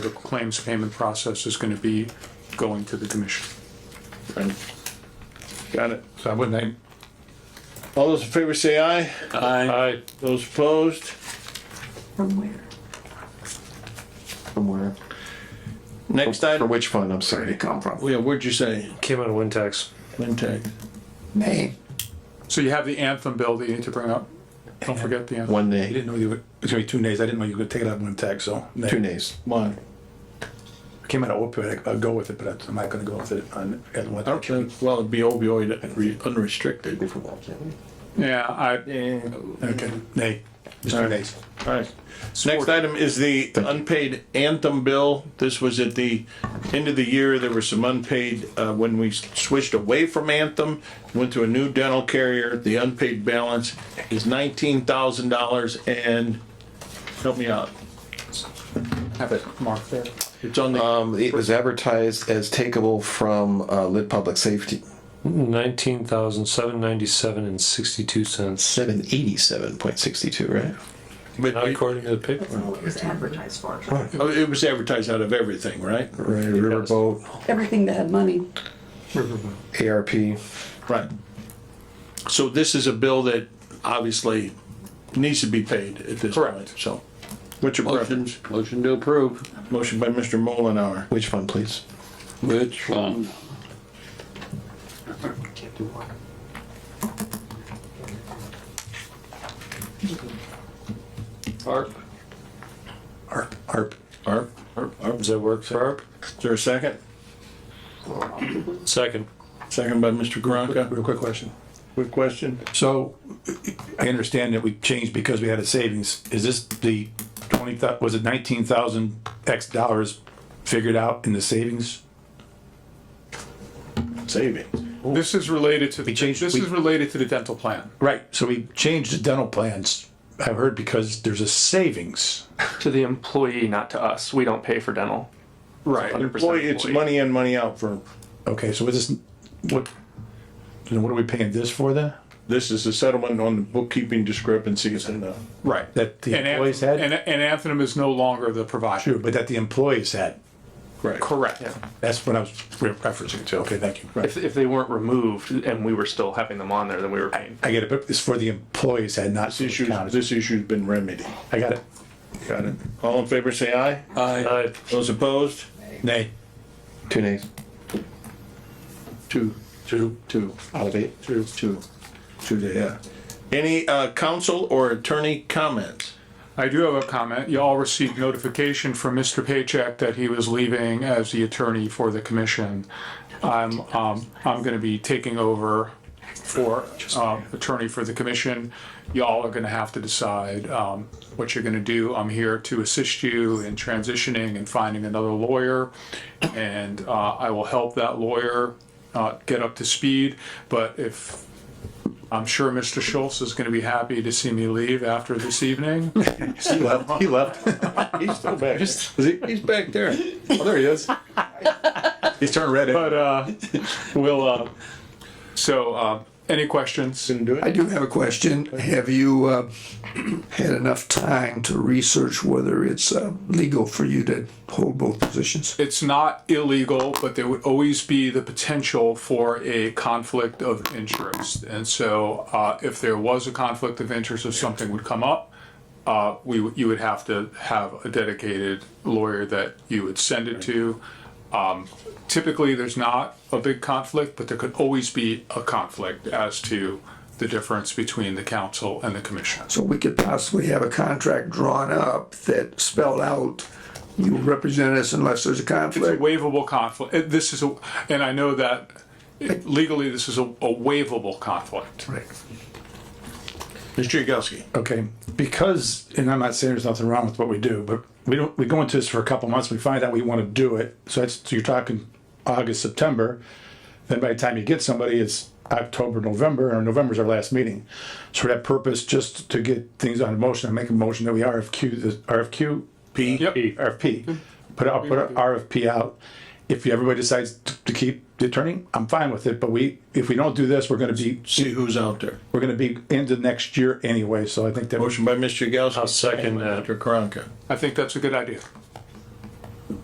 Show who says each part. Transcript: Speaker 1: the claims payment process is gonna be going to the commission.
Speaker 2: Right. Got it.
Speaker 1: So I wouldn't,
Speaker 2: All those in favor say aye. Aye. Those opposed?
Speaker 3: From where?
Speaker 4: From where?
Speaker 2: Next
Speaker 4: From
Speaker 2: item,
Speaker 4: which fund, I'm sorry.
Speaker 3: Come from.
Speaker 2: Oh, yeah, what'd you say?
Speaker 5: Came out of wind tax.
Speaker 2: Wintag.
Speaker 3: Maine.
Speaker 1: so you have the Anthem bill that you need to bring up. Don't forget the Anthem.
Speaker 4: One
Speaker 6: I
Speaker 4: nay,
Speaker 6: didn't know you were, it's gonna be two nays. I didn't know you were gonna take it out of one tax, so.
Speaker 4: two nays.
Speaker 2: Come on.
Speaker 6: I Came out of opioid, I'll go with it, but I'm not gonna go with it on, at one.
Speaker 2: I don't think, well, it'd be opioid re- unrestricted.
Speaker 1: Yeah, I,
Speaker 6: Okay, nay, just two nays.
Speaker 2: All right. Next item is the unpaid Anthem bill. This was at the end of the year. There were some unpaid, uh, when we switched away from Anthem, went to a new dental carrier. The unpaid balance is nineteen thousand dollars and, help me out,
Speaker 1: have it marked there.
Speaker 2: it's on
Speaker 5: Uh,
Speaker 2: the.
Speaker 4: Um, it was advertised as takeable from, uh, Lit Public Safety,
Speaker 5: Nineteen thousand seven ninety-seven and sixty-two cents.
Speaker 4: seven eighty-seven point sixty-two, right?
Speaker 2: But
Speaker 5: Not according to the paper.
Speaker 3: Well, it was advertised for.
Speaker 2: Oh, It was advertised out of everything, right?
Speaker 4: Right, Riverboat,
Speaker 3: Everything that had money.
Speaker 4: ARP.
Speaker 2: Right. So this is a bill that obviously needs to be paid at this point, so. What's your preference?
Speaker 7: Motion to approve.
Speaker 2: Motion by Mr. Mullenhour.
Speaker 4: Which fund, please?
Speaker 7: Which one? Park.
Speaker 6: ARP, ARP.
Speaker 2: ARP? ARP, ARP.
Speaker 5: Does that work for ARP?
Speaker 2: Is there a second?
Speaker 5: Second.
Speaker 2: Second by Mr. Karanka.
Speaker 6: Real quick question.
Speaker 2: Quick question.
Speaker 6: So I understand that we changed because we had a savings. Is this the twenty thou, was it nineteen thousand X dollars figured out in the savings?
Speaker 2: Savings.
Speaker 1: This is related to, the-
Speaker 6: We changed-
Speaker 1: this
Speaker 6: we-
Speaker 1: is related to the dental plan.
Speaker 6: Right, so we changed the dental plans, I've heard, because there's a savings.
Speaker 8: to the employee, not to us. We don't pay for dental.
Speaker 1: Right.
Speaker 2: Employee, it's money in, money out for,
Speaker 6: Okay, so is this, what, then what are we paying this for then?
Speaker 2: this is a settlement on the bookkeeping discrepancies and the.
Speaker 1: Right.
Speaker 6: That the
Speaker 1: And
Speaker 6: employees
Speaker 1: Anthem, and,
Speaker 6: had?
Speaker 1: and Anthem is no longer the provider.
Speaker 6: True, but that the employees had.
Speaker 2: Correct.
Speaker 1: Correct.
Speaker 6: That's what I was re- referencing to. Okay, thank you.
Speaker 8: If, if they weren't removed and we were still having them on there, then we were paying.
Speaker 6: I get it, but it's for the employees had not
Speaker 2: This issue,
Speaker 6: counted.
Speaker 2: this issue's been remedied.
Speaker 6: I got it.
Speaker 2: Got it. All in favor, say aye.
Speaker 5: Aye.
Speaker 2: Those opposed?
Speaker 6: Nay.
Speaker 4: Two nays.
Speaker 2: Two. Two. Two.
Speaker 4: Out of eight.
Speaker 2: Two. Two. Two, yeah. Any, uh, council or attorney comments?
Speaker 1: I do have a comment. You all received notification from Mr. Paycheck that he was leaving as the attorney for the commission. I'm, um, I'm gonna be taking over for, um, attorney for the commission. Y'all are gonna have to decide, um, what you're gonna do. I'm here to assist you in transitioning and finding another lawyer. And, uh, I will help that lawyer, uh, get up to speed, but if I'm sure Mr. Schultz is going to be happy to see me leave after this evening.
Speaker 6: He left. He left.
Speaker 2: He's still back. He's back there.
Speaker 6: Oh, there he is. He's turned red.
Speaker 1: But uh, we'll. Uh, so, uh, any questions?
Speaker 2: Didn't do it.
Speaker 9: I do have a question. Have you uh, had enough time to research whether it's uh, legal for you to hold both positions?
Speaker 1: It's not illegal, but there would always be the potential for a conflict of interest. And so, uh, if there was a conflict of interest, if something would come up, uh, we would- you would have to have a dedicated lawyer that you would send it to. Um, typically, there's not a big conflict, but there could always be a conflict as to the difference between the council and the commission.
Speaker 9: So we could possibly have a contract drawn up that spelled out, you represent us unless there's a
Speaker 1: It's a
Speaker 9: conflict.
Speaker 1: waivable conflict. It- This is a, and I know that legally this is a, a waivable conflict.
Speaker 9: Right.
Speaker 2: Mr. Yagowski.
Speaker 6: Okay, because, and I'm not saying there's nothing wrong with what we do, but we don't, we go into this for a couple months, we find out we want to do it. So that's, so you're talking August, September. Then by the time you get somebody, it's October, November, or November's our last meeting. So for that purpose, just to get things on motion, I make a motion that we RFQ, the RFQ. P.
Speaker 1: Yep.
Speaker 6: RFP. Put out, put an RFP out. If everybody decides to to keep the attorney, I'm fine with it, but we, if we don't do this, we're gonna be,
Speaker 2: See who's out there.
Speaker 6: we're gonna be into next year anyway, so I think that.
Speaker 2: Motion by Mr. Yagowski.
Speaker 5: I'll second that.
Speaker 2: Mr. Karanka.
Speaker 1: I think that's a good idea.